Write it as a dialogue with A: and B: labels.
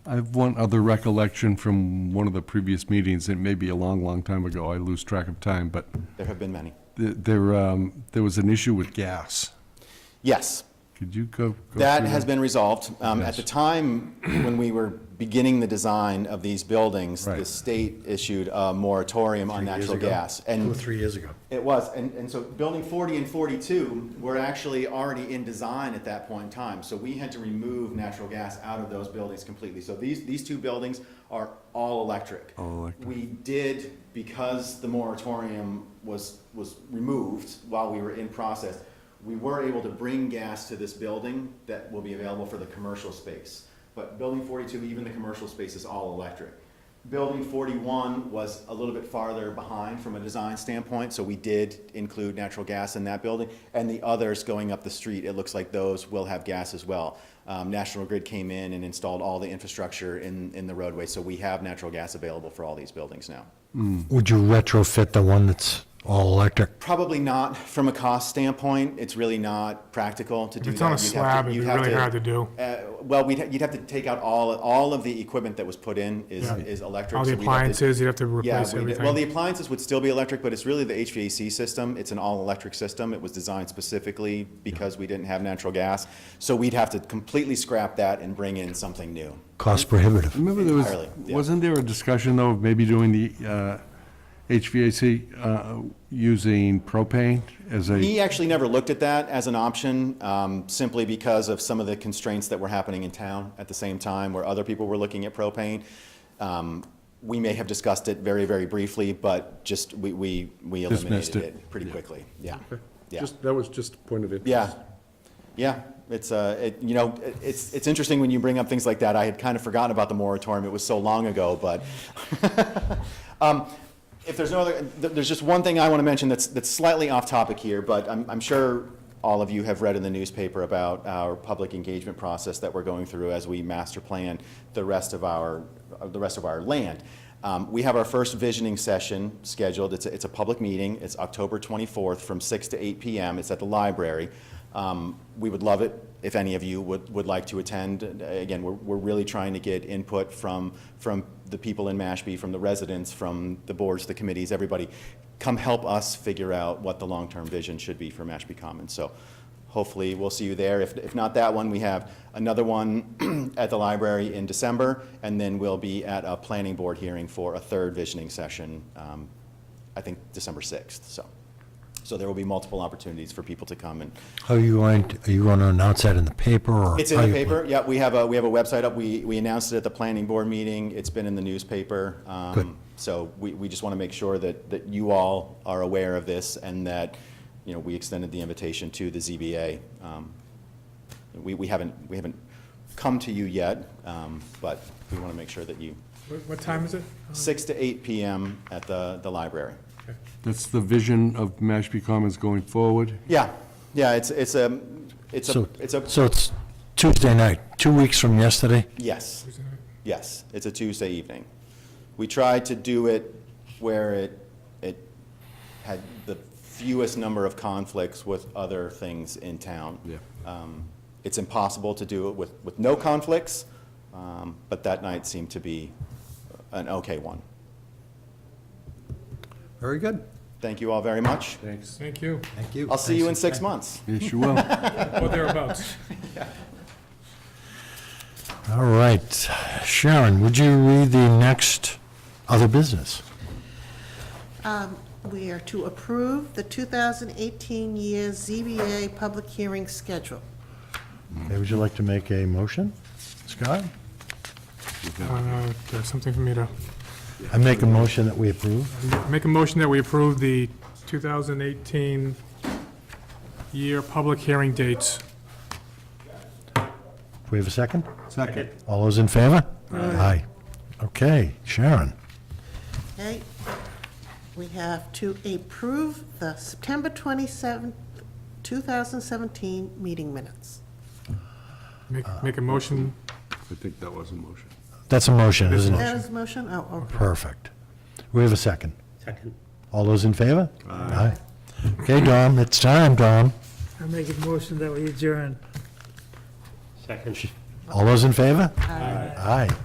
A: I have one other recollection from one of the previous meetings, it may be a long, long time ago, I lose track of time, but
B: There have been many.
A: th- there, um, there was an issue with gas.
B: Yes,
A: Could you go? go
B: that
A: through
B: has been resolved. Um, At the
A: Yes.
B: time, when we were beginning the design of these buildings, the
A: Right.
B: state issued a moratorium on natural gas.
C: Two or
B: And
C: three years ago.
B: It was, and, and so building forty and forty-two were actually already in design at that point in time, so we had to remove natural gas out of those buildings completely. So these, these two buildings are all electric.
A: All electric.
B: We did, because the moratorium was, was removed while we were in process, we were able to bring gas to this building that will be available for the commercial space. But building forty-two, even the commercial space is all electric. Building 41 was a little bit farther behind from a design standpoint, so we did include natural gas in that building. And the others going up the street, it looks like those will have gas as well. Um, National Grid came in and installed all the infrastructure in, in the roadway, so we have natural gas available for all these buildings now.
C: Would you retrofit the one that's all electric?
B: Probably not from a cost standpoint, it's really not practical to do that.
D: it's on a
B: You'd have to-
D: slab, it'd be
B: you'd have
D: really hard to do.
B: Uh, Well, we'd, ha- you'd have to take out all, all of the equipment that was put in is,
D: Yeah.
B: is electric.
D: All the
B: so we'd have to-
D: appliances, you'd have to
B: Yeah,
D: replace
B: we did- well, the
D: everything.
B: appliances would still be electric, but it's really the HVAC system. It's an all-electric system. It was designed specifically because we didn't have natural gas. So we'd have to completely scrap that and bring in something new.
C: Cost prohibitive.
A: Remember there was,
B: Entirely, yeah.
A: wasn't there a discussion though of maybe doing the uh, HVAC uh, using propane as a,
B: He actually never looked at that as an option, um, simply because of some of the constraints that were happening in town at the same time, where other people were looking at propane. Um, We may have discussed it very, very briefly, but just, we, we we
A: Dismissed
B: eliminated
A: it.
B: it pretty quickly, yeah. Yeah.
A: Just- that was just a point of interest.
B: Yeah, yeah, it's, uh, it, you know, it- it's, it's interesting when you bring up things like that. I had kind of forgotten about the moratorium, it was so long ago, but. Um, If there's no other, th- there's just one thing I want to mention that's, that's slightly off topic here, but I'm, I'm sure all of you have read in the newspaper about our public engagement process that we're going through as we master plan the rest of our, uh, the rest of our land. Um, We have our first visioning session scheduled. It's, a- it's a public meeting. It's October 24th from 6 to 8 PM. It's at the library. Um, We would love it if any of you would, would like to attend. And, uh, Again, we're, we're really trying to get input from, from the people in Mashpee, from the residents, from the boards, the committees, everybody. Come help us figure out what the long-term vision should be for Mashpee Commons. So hopefully, we'll see you there. If, if not that one, we have another one at the library in December, and then we'll be at a planning board hearing for a third visioning session, um, I think December 6th, so. So there will be multiple opportunities for people to come and,
C: How are you going, to- are you going to announce that in the paper or?
B: it's in
C: how
B: the
C: you plan-
B: paper, yeah, we have a, we have a website up, we, we announced it at the planning board meeting, it's been in the newspaper. um,
C: Good.
B: So we, we just want to make sure that, that you all are aware of this and that, you know, we extended the invitation to the ZBA. Um, We, we haven't, we haven't come to you yet, um, but we want to make sure that you,
D: What- What time is it?
B: six to eight PM at the, the library.
A: That's the vision of Mashpee Commons going forward.
B: Yeah, yeah, it's, it's a, it's a,
C: So,
B: it's a,
C: so it's Tuesday night, two weeks from yesterday?
B: yes.
D: Tuesday night?
B: Yes, it's a Tuesday evening. We tried to do it where it, it had the fewest number of conflicts with other things in town.
A: Yeah.
B: Um, It's impossible to do it with, with no conflicts, um, but that night seemed to be an okay one.
C: Very good.
B: Thank you all very much.
A: Thanks.
D: Thank you,
C: Thank you.
B: I'll see you in
C: Thanks.
B: six months.
A: Yes, you will.
D: or thereabouts.
C: All right. Sharon, would you read the next other business?
E: We are to approve the 2018 year ZBA public hearing schedule.
C: Okay, Would you like to make a motion, Scott?
D: Uh, there's Something for me to,
C: I make a motion that we approve.
D: make a motion that we approve the 2018 year public hearing dates.
C: Do we have a second?
A: Second.
C: All those in favor? Aye. Okay, Sharon.
E: Okay? We have to approve the September 27, 2017 meeting minutes.
D: Make, make a motion,
A: I think that was a motion.
C: That's a motion, isn't it?
E: That is motion, oh, okay.
C: Perfect. We have a second.
F: Second.
C: All those in favor? Aye. Okay, Dom, it's time, Dom.
G: I make a motion that we adjourn.
F: Second.
C: All those in favor? Aye. Aye.